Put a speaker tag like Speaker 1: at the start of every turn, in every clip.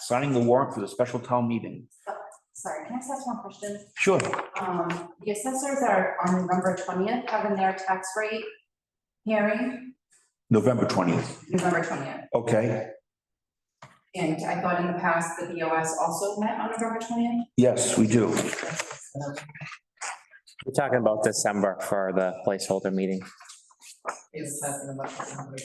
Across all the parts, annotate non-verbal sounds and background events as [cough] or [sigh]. Speaker 1: signing the warrant for the special town meeting.
Speaker 2: Sorry, can I just ask one question?
Speaker 1: Sure,
Speaker 2: Um, the assessors are on November twentieth having their tax rate hearing,
Speaker 1: November twentieth,
Speaker 2: November twentieth.
Speaker 1: okay,
Speaker 2: And I thought in the past, the BOS also met on November twentieth.
Speaker 1: yes, we do.
Speaker 3: We're talking about December for the placeholder meeting.
Speaker 4: is talking about the number.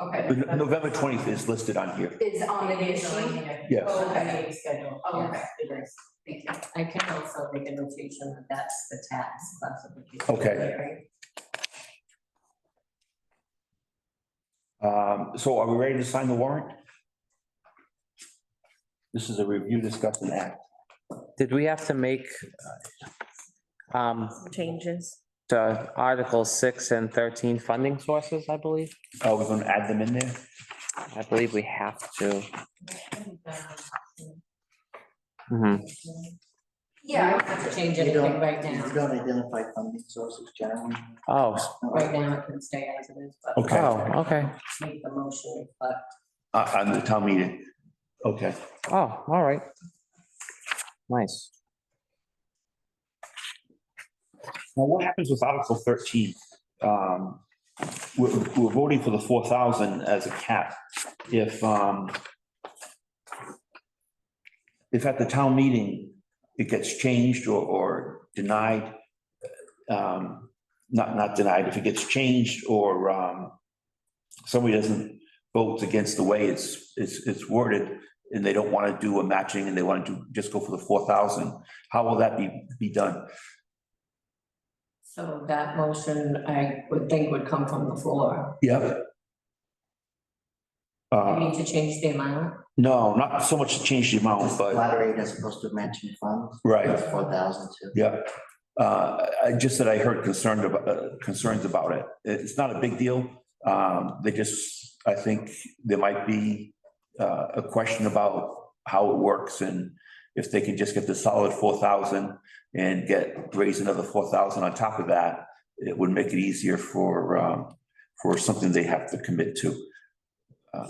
Speaker 2: Okay.
Speaker 1: But November twentieth is listed on here,
Speaker 2: Is on the day sheet.
Speaker 4: Occasionally,
Speaker 1: yes.
Speaker 4: Oh, the meeting schedule,
Speaker 2: Oh,
Speaker 4: yes, it is.
Speaker 2: Thank you.
Speaker 4: I can also make a notation that that's the tax classification.
Speaker 1: Okay.
Speaker 4: right?
Speaker 1: Um, so are we ready to sign the warrant? This is a review, discuss and act.
Speaker 3: Did we have to make uh, um,
Speaker 5: changes.
Speaker 3: to Article six and thirteen funding sources, I believe?
Speaker 1: Oh, we're gonna add them in there?
Speaker 3: I believe we have to. Mhm.
Speaker 4: Yeah,
Speaker 2: Yeah,
Speaker 4: I don't have to change
Speaker 6: You
Speaker 4: anything
Speaker 6: don't-
Speaker 4: right
Speaker 6: You
Speaker 4: now.
Speaker 6: don't identify funding sources generally.
Speaker 3: Oh,
Speaker 4: Right now, it can stay as it is, but
Speaker 1: Okay,
Speaker 3: oh, okay.
Speaker 4: make the motion reflect
Speaker 1: uh, on the town meeting, okay.
Speaker 3: Oh, all right. Nice.
Speaker 1: Now, what happens with Article thirteen? Um, we're, we're voting for the four thousand as a cap. If, um, if at the town meeting, it gets changed or, or denied, um, not, not denied, if it gets changed or, um, somebody doesn't vote against the way it's, it's, it's worded, and they don't want to do a matching and they want to just go for the four thousand, how will that be, be done?
Speaker 4: So that motion, I would think would come from the floor.
Speaker 1: Yep.
Speaker 4: You
Speaker 1: Uh,
Speaker 4: need to change the amount.
Speaker 1: no, not so much to change the amount, but,
Speaker 6: Flat rate as opposed to matching funds,
Speaker 1: right,
Speaker 6: that's four thousand too.
Speaker 1: yeah. Uh, I- I just said I heard concerned about, uh, concerns about it. It's not a big deal. Um, they just, I think there might be uh, a question about how it works and if they can just get the solid four thousand and get, raise another four thousand on top of that, it would make it easier for, um, for something they have to commit to.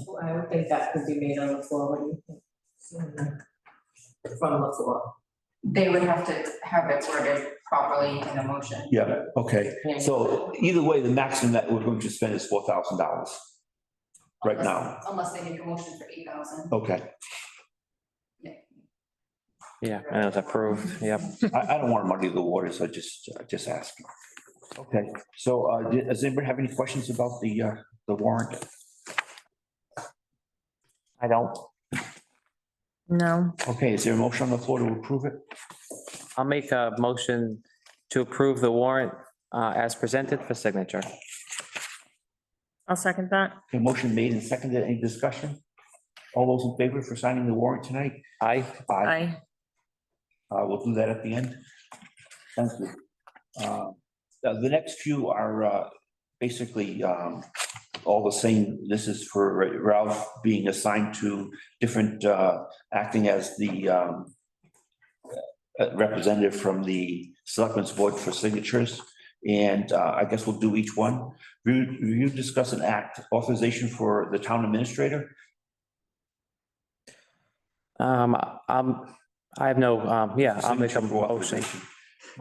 Speaker 4: So I would think that could be made on the floor. What do you think? From the floor.
Speaker 2: they would have to have it worded properly in the motion.
Speaker 1: Yeah, okay. So either way, the maximum that we're going to spend is four thousand dollars. Right now,
Speaker 2: Unless they make a motion for eight thousand.
Speaker 1: okay.
Speaker 3: Yeah, and it was approved. Yep.
Speaker 1: I, I don't want to muddy the waters, I just, I just ask. Okay, so, uh, d- does anybody have any questions about the, uh, the warrant?
Speaker 3: I don't.
Speaker 5: No,
Speaker 1: Okay, is there a motion on the floor to approve it?
Speaker 3: I'll make a motion to approve the warrant uh, as presented for signature.
Speaker 5: I'll second that.
Speaker 1: A motion made and seconded, any discussion? All those in favor for signing the warrant tonight?
Speaker 3: Aye.
Speaker 1: Aye.
Speaker 5: I,
Speaker 1: Uh, we'll do that at the end. Thank you. Uh, The the next few are uh, basically um, all the same. This is for Ralph being assigned to different, uh, acting as the um, uh, representative from the Selectmen's Board for signatures. And uh, I guess we'll do each one. Review, review, discuss, and act authorization for the town administrator.
Speaker 3: Um, um, I have no, um, yeah, I'll make a
Speaker 1: Signature for
Speaker 3: motion,
Speaker 1: authorization.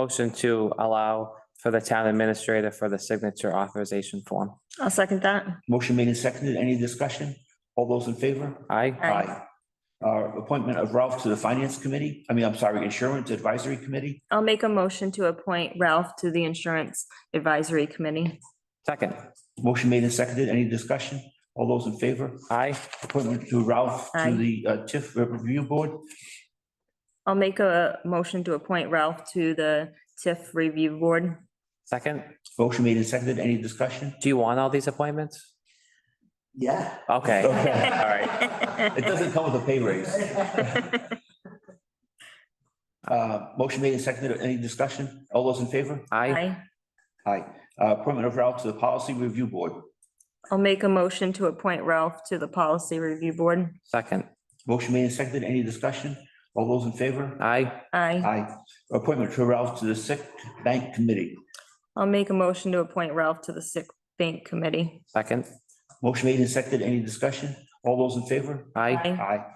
Speaker 3: motion to allow for the town administrator for the signature authorization form.
Speaker 5: I'll second that.
Speaker 1: Motion made and seconded. Any discussion? All those in favor?
Speaker 3: Aye.
Speaker 5: Aye.
Speaker 1: Uh, appointment of Ralph to the Finance Committee, I mean, I'm sorry, Insurance Advisory Committee.
Speaker 5: I'll make a motion to appoint Ralph to the Insurance Advisory Committee.
Speaker 3: Second,
Speaker 1: Motion made and seconded. Any discussion? All those in favor?
Speaker 3: aye.
Speaker 1: Appointment to Ralph to
Speaker 5: Aye.
Speaker 1: the uh, TIF Review Board.
Speaker 5: I'll make a motion to appoint Ralph to the TIF Review Board.
Speaker 3: Second,
Speaker 1: Motion made and seconded. Any
Speaker 3: [laughs]
Speaker 1: discussion?
Speaker 3: do you want all these appointments?
Speaker 6: Yeah.
Speaker 3: Okay, all right.
Speaker 1: It doesn't come with a pay raise. Uh, motion made and seconded. Any discussion? All those in favor?
Speaker 3: Aye.
Speaker 5: I,
Speaker 1: Aye. Uh, appointment of Ralph to the Policy Review Board.
Speaker 5: I'll make a motion to appoint Ralph to the Policy Review Board.
Speaker 3: Second,
Speaker 1: Motion made and seconded. Any discussion? All those in favor?
Speaker 3: aye.
Speaker 5: I,
Speaker 1: Aye. Appointment to Ralph to the Sick Bank Committee.
Speaker 5: I'll make a motion to appoint Ralph to the Sick Bank Committee.
Speaker 3: Second,
Speaker 1: Motion made and seconded. Any discussion?
Speaker 3: All those in favor?
Speaker 7: Aye.
Speaker 1: Aye.
Speaker 3: Aye.